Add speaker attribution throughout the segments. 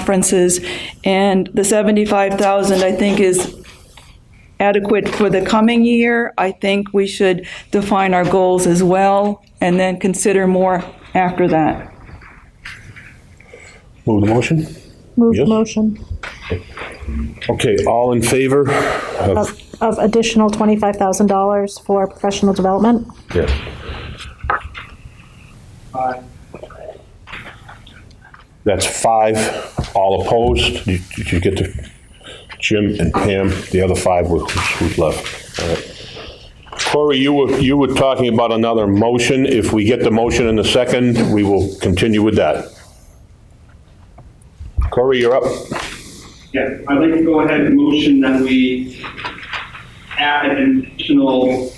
Speaker 1: conferences. And the 75,000, I think, is adequate for the coming year. I think we should define our goals as well and then consider more after that.
Speaker 2: Move the motion?
Speaker 3: Move
Speaker 2: Yes.
Speaker 3: motion
Speaker 2: Okay, all in favor of,
Speaker 3: of additional $25,000 for professional development.
Speaker 2: yeah. That's five, all opposed. Did did you get to Jim and Pam, the other five were who's left? All right. Corey, you were, you were talking about another motion. If we get the motion in the second, we will continue with that. Corey, you're up.
Speaker 4: Yeah, I'd like to go ahead and motion that we add an additional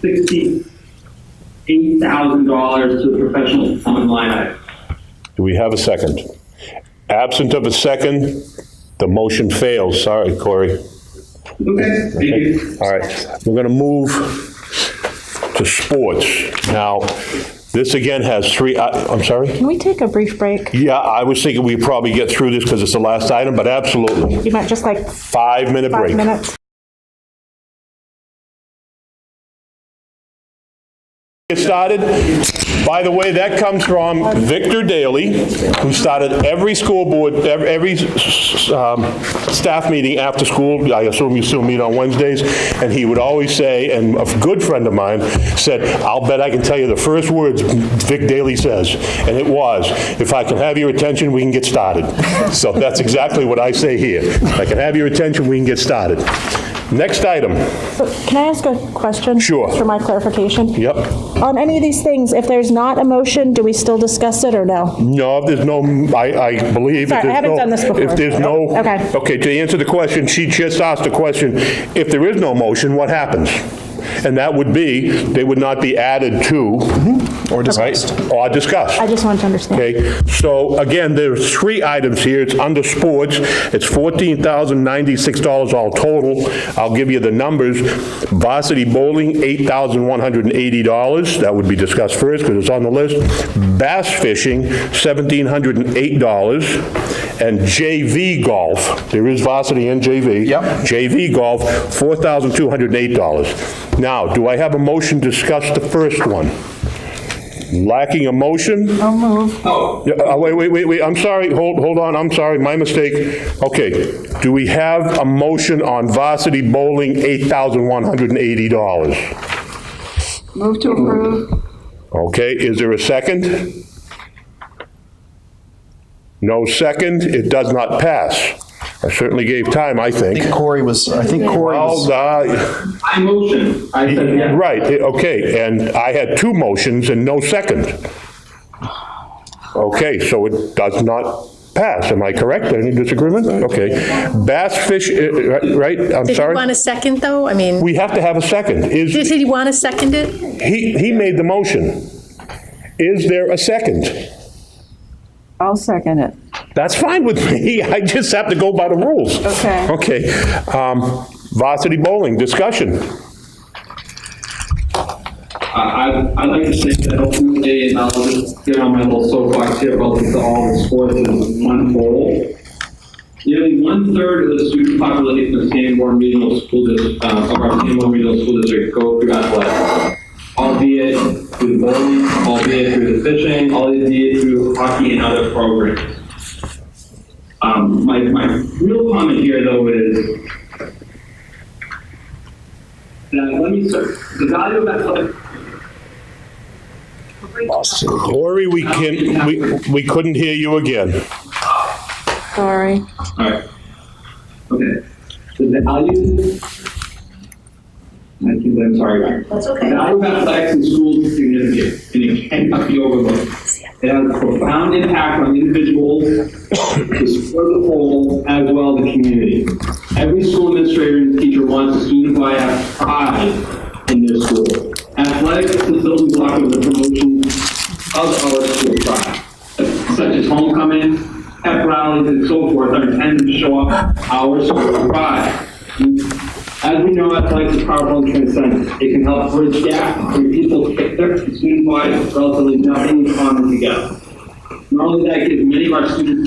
Speaker 4: sixty-eight thousand dollars to the professional development line item.
Speaker 2: Do we have a second? Absent of a second, the motion fails. Sorry, Corey.
Speaker 4: Okay, thank you.
Speaker 2: All right, we're going to move to sports. Now, this again has three, I- I'm sorry?
Speaker 3: Can we take a brief break?
Speaker 2: Yeah, I was thinking we'd probably get through this because it's the last item, but absolutely.
Speaker 3: You might just like
Speaker 2: Five-minute break.
Speaker 3: five minutes.
Speaker 2: Get started. By the way, that comes from Victor Daly, who started every school board, ev- every s- um, staff meeting after school. I assume you still meet on Wednesdays. And he would always say, and a good friend of mine said, "I'll bet I can tell you the first words Vic Daly says." And it was, "If I can have your attention, we can get started." So that's exactly what I say here. If I can have your attention, we can get started. Next item.
Speaker 3: So Can I ask a question?
Speaker 2: Sure.
Speaker 3: For my clarification?
Speaker 2: Yep.
Speaker 3: On any of these things, if there's not a motion, do we still discuss it or no?
Speaker 2: No, if there's no, I, I believe. if
Speaker 3: Sorry, I
Speaker 2: there's
Speaker 3: haven't
Speaker 2: no-
Speaker 3: done this before.
Speaker 2: If there's no.
Speaker 3: Okay.
Speaker 2: Okay, to answer the question, she just asked the question, if there is no motion, what happens? And that would be, they would not be added to. Or discussed. Or discussed.
Speaker 3: I just wanted to understand.
Speaker 2: Okay, so again, there's three items here. It's under sports. It's $14,096 all total. I'll give you the numbers. Varsity bowling, $8,180. That would be discussed first because it's on the list. Bass fishing, $1,708. And JV golf, there is varsity and JV. Yep. JV golf, $4,208. Now, do I have a motion to discuss the first one? Lacking a motion? Yeah, uh, Wait, wait, wait, wait, I'm sorry, hold, hold on, I'm sorry, my mistake. Okay, do we have a motion on varsity bowling, $8,180?
Speaker 5: Move to approve.
Speaker 2: Okay, is there a second? No second, it does not pass. I certainly gave time, I
Speaker 6: I
Speaker 2: think.
Speaker 6: think Corey was, I think Corey
Speaker 2: Well,
Speaker 6: was,
Speaker 2: uh,
Speaker 4: I motion, I said yes.
Speaker 2: Right, eh, okay, and I had two motions and no second. Okay, so it does not pass, am I correct? Any disagreement? Okay. Bass fish, eh, eh, right, I'm
Speaker 7: Did you want
Speaker 2: sorry?
Speaker 7: a second, though? I mean,
Speaker 2: We have to have a second.
Speaker 7: did
Speaker 2: Is,
Speaker 7: he want to second it?
Speaker 2: he, he made the motion. Is there a second?
Speaker 1: I'll second it.
Speaker 2: That's fine with me, I just have to go by the rules.
Speaker 1: Okay.
Speaker 2: Okay. um, Varsity bowling, discussion.
Speaker 4: I, I'd like to say that ultimately, and I'll just get on my little soapbox here relative to all the sports in one whole. Nearly one-third of the student population of Sanborn Regional School District, uh, of our Sanborn Regional School District go through athletics. Albeit through the bowling, albeit through the fishing, albeit through hockey and other programs. Um, my, my real comment here though is, that let me, start- the value of athletic
Speaker 2: Lori, we can, we, we couldn't hear you again.
Speaker 1: Sorry.
Speaker 4: Alright. Okay. So the value. I think, I'm sorry, Ryan. That's okay. The value of athletics in schools is significant, and it cannot be overlooked. It has a profound impact on individuals, the sport as a whole, as well as the community. Every school administrator and teacher wants a student who I have pride in their school. Athletics is the building block of the promotion of our school pride, such as homecoming, pep rallies, and so forth, are intended to show off our school pride. As we know, athletics is powerful and transcendent. It can help bridge gaps between people, student-wise, relatively nothing in common together. Not only that, it gives many of our students